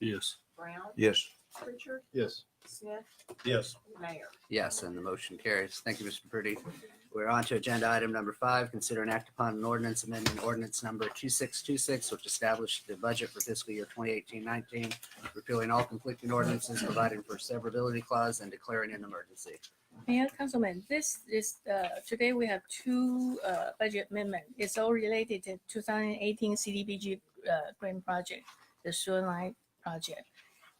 Yes. Brown, Yes. Pritchard, Yes. Smith, Yes. Mayor. Yes, and the motion carries. Thank you, Mr. Purdy. We're on to agenda item number five, consider and act upon an ordinance amendment, ordinance number 2626, which established the budget for fiscal year 2018-19, repealing all conflicting ordinances, providing for severability clause, and declaring an emergency. Mayor, Councilman, this is, uh, today we have two uh, budget amendment. It's all related to 2018 CDBG uh, grant project, the sewer line project.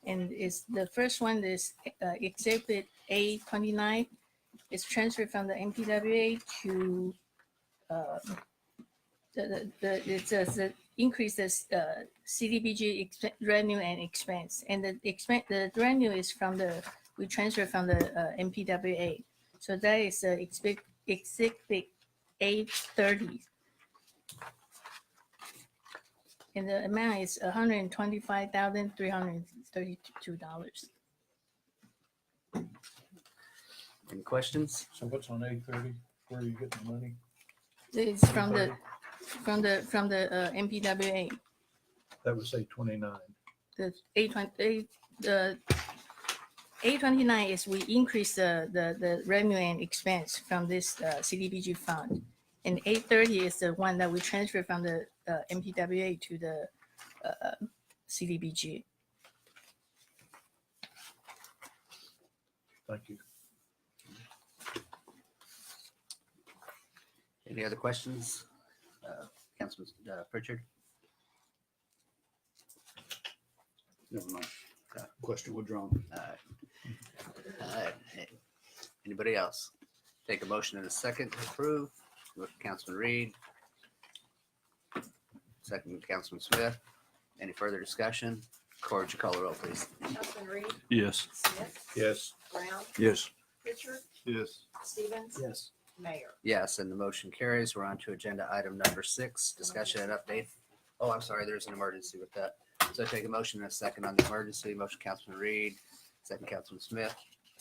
And it's, the first one is uh, Exhibit A29. It's transferred from the MPWA to, uh, the, the- the, it says it increases uh, CDBG expe- revenue and expense. And the expense, the revenue is from the we transfer from the uh, MPWA. So that is uh, exhibit, exhibit A thirty. And the amount is hundred and twenty-five thousand, three hundred and thirty-two dollars. Any questions? So what's on A thirty? Where are you getting the money? It's from the, from the, from the uh, MPWA, That was A twenty-nine. the A twenty, the A twenty-nine is we increase the, the, the revenue and expense from this uh, CDBG fund. And A thirty is the one that we transfer from the uh, MPWA to the uh, CDBG. Thank you. Any other questions? Uh, Councilman uh, Pritchard? Never mind. Uh, Question withdrawn. All right. All right. Anybody else? Take a motion in a second to approve. Motion, Councilman Reed. Second, Councilman Smith. Any further discussion? Corr, would you call the roll, please? Councilman Reed, Yes. Smith, Yes. Brown, Yes. Pritchard, Yes. Stevens, Yes. Mayor. Yes, and the motion carries. We're on to agenda item number six, discussion and update. Oh, I'm sorry, there's an emergency with that. So I take a motion and a second on the emergency. Motion Councilman Reed, second Councilman Smith.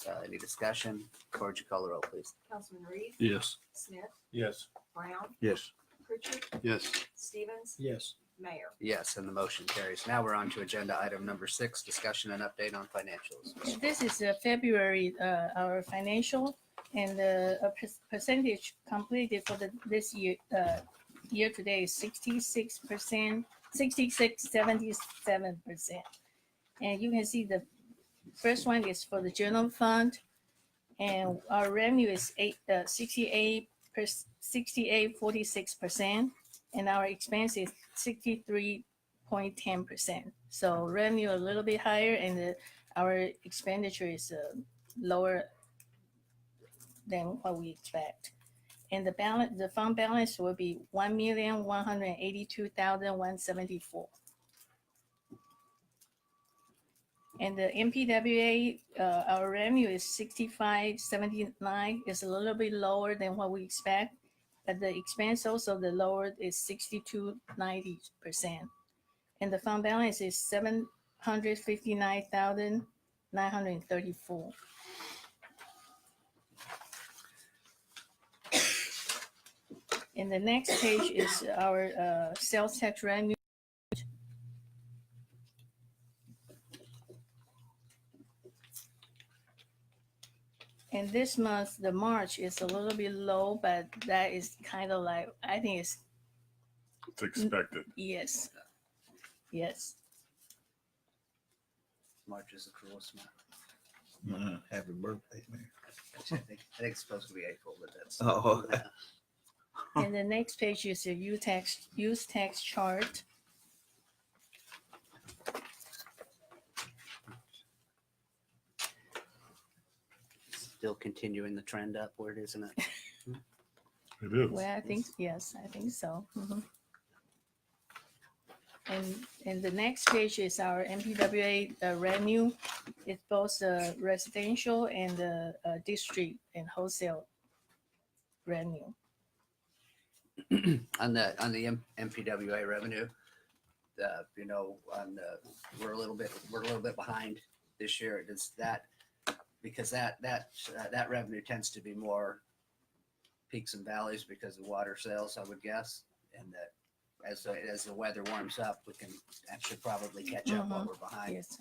Uh, any discussion? Corge, you call the roll, please. Councilman Reed, Yes. Smith, Yes. Brown, Yes. Pritchard, Yes. Stevens, Yes. Mayor. Yes, and the motion carries. Now we're on to agenda item number six, discussion and update on financials. This is uh, February, uh, our financial and the percentage completed for the, this year, uh, year to date is sixty-six percent, sixty-six, seventy-seven percent. And you can see the first one is for the general fund. And our revenue is eight, uh, sixty-eight, sixty-eight, forty-six percent. And our expense is sixty-three point ten percent. So revenue a little bit higher and the our expenditure is uh, lower than what we expect. And the balance, the fund balance will be one million, one hundred and eighty-two thousand, one seventy-four. And the MPWA, uh, our revenue is sixty-five, seventy-nine, is a little bit lower than what we expect. But the expense also, the lower is sixty-two, ninety percent. And the fund balance is seven hundred fifty-nine thousand nine hundred thirty-four. And the next page is our uh, sales tax revenue. And this month, the March is a little bit low, but that is kind of like, I think it's, It's expected. yes. Yes. March is the cruelest month. Mm-hmm. Happy birthday, Mayor. Actually, I think I think it's supposed to be April, but that's. Oh, And the next page is the use tax, use tax chart. Still continuing the trend upward, isn't it? It is. Well, I think, yes, I think so. Mhm. And, and the next page is our MPWA uh, revenue. It's both uh, residential and the uh, district and wholesale revenue. on the on the M- MPWA revenue, uh, you know, on the, we're a little bit, we're a little bit behind this year. Does that, because that, that, uh, that revenue tends to be more peaks and valleys because of water sales, I would guess, and that as, the- as the weather warms up, we can actually probably catch up what we're behind. yes.